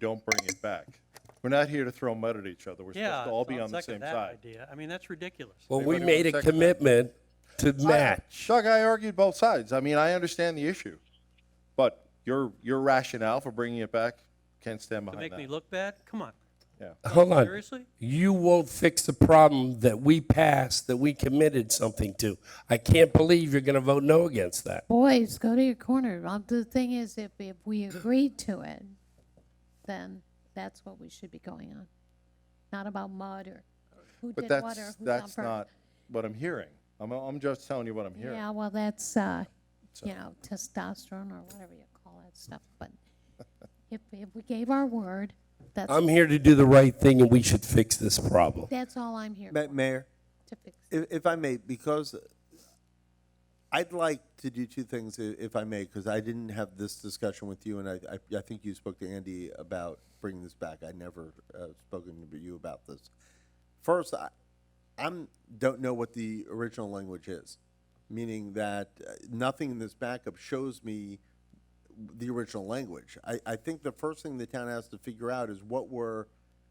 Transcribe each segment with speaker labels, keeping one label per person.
Speaker 1: don't bring it back. We're not here to throw mud at each other. We're supposed
Speaker 2: Yeah,
Speaker 1: to all
Speaker 2: so
Speaker 1: be
Speaker 2: I'll
Speaker 1: on the
Speaker 2: second
Speaker 1: same
Speaker 2: that
Speaker 1: side.
Speaker 2: idea. I mean, that's ridiculous.
Speaker 3: Well, we
Speaker 1: Anybody want
Speaker 3: made a
Speaker 1: a second?
Speaker 3: commitment to match.
Speaker 1: Chuck, I argued both sides. I mean, I understand the issue, but your your rationale for bringing it back can't stand
Speaker 2: To
Speaker 1: behind
Speaker 2: make
Speaker 1: that.
Speaker 2: me look bad? Come on.
Speaker 1: yeah.
Speaker 3: Hold on.
Speaker 2: Seriously?
Speaker 3: You won't fix the problem that we passed, that we committed something to. I can't believe you're going to vote no against that.
Speaker 4: Boys, go to your corner. Um, The thing is, if, if we agreed to it, then that's what we should be going on. Not about mud or who
Speaker 1: But
Speaker 4: did what or
Speaker 1: that's
Speaker 4: who's on
Speaker 1: that's
Speaker 4: first.
Speaker 1: not what I'm hearing. I'm I'm just telling you what I'm hearing.
Speaker 4: Yeah, well, that's, uh, you know, testosterone or whatever you call that stuff, but if, if we gave our word, that's,
Speaker 3: I'm here to do the right thing and we should fix this problem.
Speaker 4: that's all I'm here
Speaker 5: Ma-
Speaker 4: for,
Speaker 5: Mayor,
Speaker 4: to fix.
Speaker 5: if, if I may, because I'd like to do two things, i- if I may, because I didn't have this discussion with you, and I, I, I think you spoke to Andy about bringing this back. I never uh, spoken to you about this. First, I, I'm don't know what the original language is, meaning that uh, nothing in this backup shows me the original language. I, I think the first thing the town has to figure out is what we're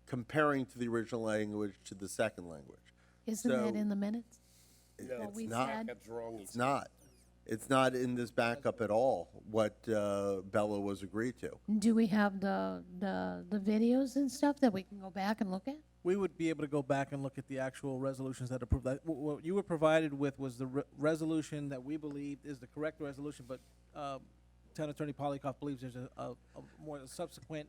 Speaker 5: comparing to the original language to the second language.
Speaker 4: Isn't that
Speaker 5: so-
Speaker 4: in the minutes? What
Speaker 5: It's
Speaker 4: we
Speaker 5: not.
Speaker 4: said?
Speaker 5: It's not. It's not in this backup at all, what uh, Bella was agreed to.
Speaker 4: Do we have the, the, the videos and stuff that we can go back and look at?
Speaker 6: we would be able to go back and look at the actual resolutions that approved that. Wh- What you were provided with was the re- resolution that we believe is the correct resolution, but um, Town Attorney Polikoff believes there's a, a, a more subsequent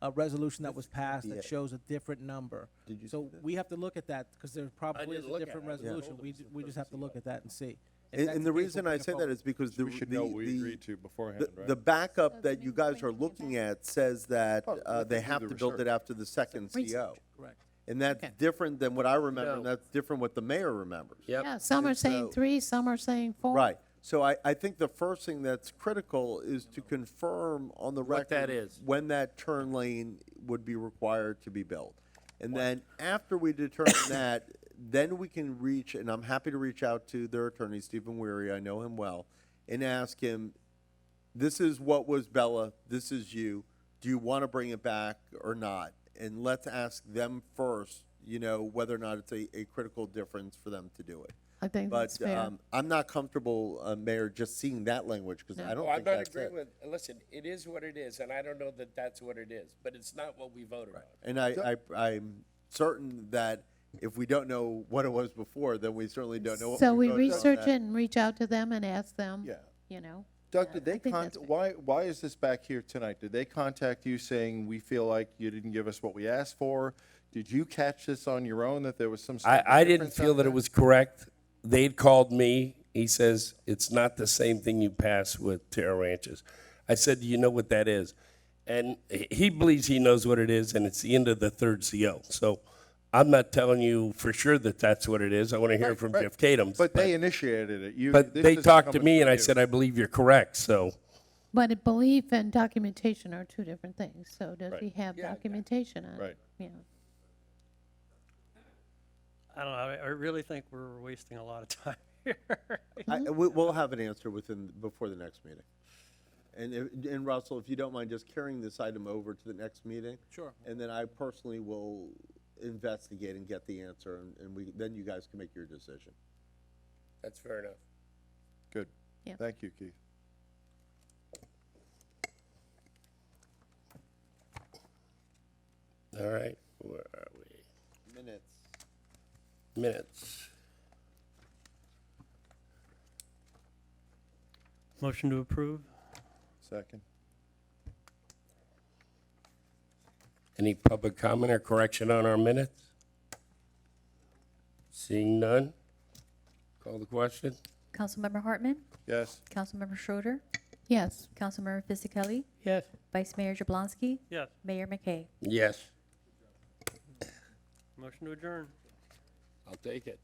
Speaker 6: uh, resolution that was passed that shows a different number. Did you so we have to look at that because there probably is a different resolution. We, ju- we just have to look at that and see. If
Speaker 5: And
Speaker 6: that's
Speaker 5: and the
Speaker 6: case, we'll
Speaker 5: reason
Speaker 6: bring
Speaker 5: I
Speaker 6: it
Speaker 5: say that
Speaker 6: forward.
Speaker 5: is because the.
Speaker 1: We should
Speaker 5: the-
Speaker 1: know what we
Speaker 5: the-
Speaker 1: agreed to beforehand,
Speaker 5: the-
Speaker 1: right?
Speaker 5: The
Speaker 4: So
Speaker 5: backup
Speaker 4: that
Speaker 5: that you
Speaker 4: means
Speaker 5: guys
Speaker 4: bringing
Speaker 5: are
Speaker 4: it
Speaker 5: looking
Speaker 4: back.
Speaker 5: at says that
Speaker 1: Well,
Speaker 5: uh,
Speaker 1: let's
Speaker 5: they
Speaker 1: do
Speaker 5: have
Speaker 1: the
Speaker 5: to build
Speaker 1: research.
Speaker 5: it after the second CO.
Speaker 6: Correct.
Speaker 5: And that's different than what I remember, and that's different what the mayor remembers.
Speaker 4: Yeah, some are saying
Speaker 5: so-
Speaker 4: three, some are saying four.
Speaker 5: Right. So I, I think the first thing that's critical is to confirm on the record.
Speaker 7: that is.
Speaker 5: When that turn lane would be required to be built. And then after we determine that, then we can reach, and I'm happy to reach out to their attorney, Stephen Weary, I know him well, and ask him, this is what was Bella, this is you. Do you want to bring it back or not? And let's ask them first, you know, whether or not it's a, a critical difference for them to do it.
Speaker 4: I think that's
Speaker 5: But
Speaker 4: fair.
Speaker 5: um, I'm not comfortable, uh, Mayor, just seeing that language because Oh, I don't
Speaker 7: Well, I'm
Speaker 5: think
Speaker 7: not
Speaker 5: that's
Speaker 7: agreeing
Speaker 5: it.
Speaker 7: with, listen, it is what it is, and I don't know that that's what it is, but it's not what we voted on.
Speaker 5: And I, I, I'm certain that if we don't know what it was before, then we certainly don't know. what
Speaker 4: So we
Speaker 5: voted on
Speaker 4: research
Speaker 5: that.
Speaker 4: it and reach out to them and ask them.
Speaker 1: Yeah.
Speaker 4: You know?
Speaker 1: Doug,
Speaker 4: Yeah,
Speaker 1: did
Speaker 4: I
Speaker 1: they
Speaker 4: think
Speaker 1: con,
Speaker 4: that's fair.
Speaker 1: why, why is this back here tonight? Did they contact you saying, we feel like you didn't give us what we asked for? Did you catch this on your own, that there was some?
Speaker 3: I,
Speaker 1: sort of
Speaker 3: I didn't
Speaker 1: difference out
Speaker 3: feel that
Speaker 1: there?
Speaker 3: it was correct. They'd called me. He says, it's not the same thing you pass with Terra Ranches. I said, do you know what that is? And he- he believes he knows what it is, and it's the end of the third CO. So I'm not telling you for sure that that's what it is. I want to hear from
Speaker 1: Right.
Speaker 3: Jeff Kadams.
Speaker 1: But they initiated it. You.
Speaker 3: But
Speaker 1: this
Speaker 3: they
Speaker 1: isn't
Speaker 3: talked to
Speaker 1: coming
Speaker 3: me,
Speaker 1: from
Speaker 3: and I
Speaker 1: you.
Speaker 3: said, I believe you're correct, so.
Speaker 4: But a belief and documentation are two different things. So does
Speaker 1: Right.
Speaker 4: he have documentation on it?
Speaker 1: Right.
Speaker 4: Yeah.
Speaker 2: I don't know. I- I really think we're wasting a lot of time here.
Speaker 5: I, we, we'll have an answer within, before the next meeting. And, if- and Russell, if you don't mind just carrying this item over to the next meeting.
Speaker 6: Sure.
Speaker 5: And then I personally will investigate and get the answer and, and we, then you guys can make your decision.
Speaker 7: That's fair enough.
Speaker 1: Good.
Speaker 4: Yeah.
Speaker 1: Thank you, Keith.
Speaker 3: All right, where are we?
Speaker 5: Minutes.
Speaker 3: Minutes.
Speaker 2: Motion to approve?
Speaker 1: Second.
Speaker 3: Any public comment or correction on our minutes? Seeing none? Call the question?
Speaker 8: Councilmember Hartman,
Speaker 1: Yes.
Speaker 8: Councilmember Schroeder,
Speaker 4: Yes.
Speaker 8: Councilmember Fisickelli,
Speaker 2: Yes.
Speaker 8: Vice Mayor Jablonski,
Speaker 2: Yes.
Speaker 8: Mayor McKay.
Speaker 3: Yes.
Speaker 2: Motion to adjourn.
Speaker 7: I'll take it.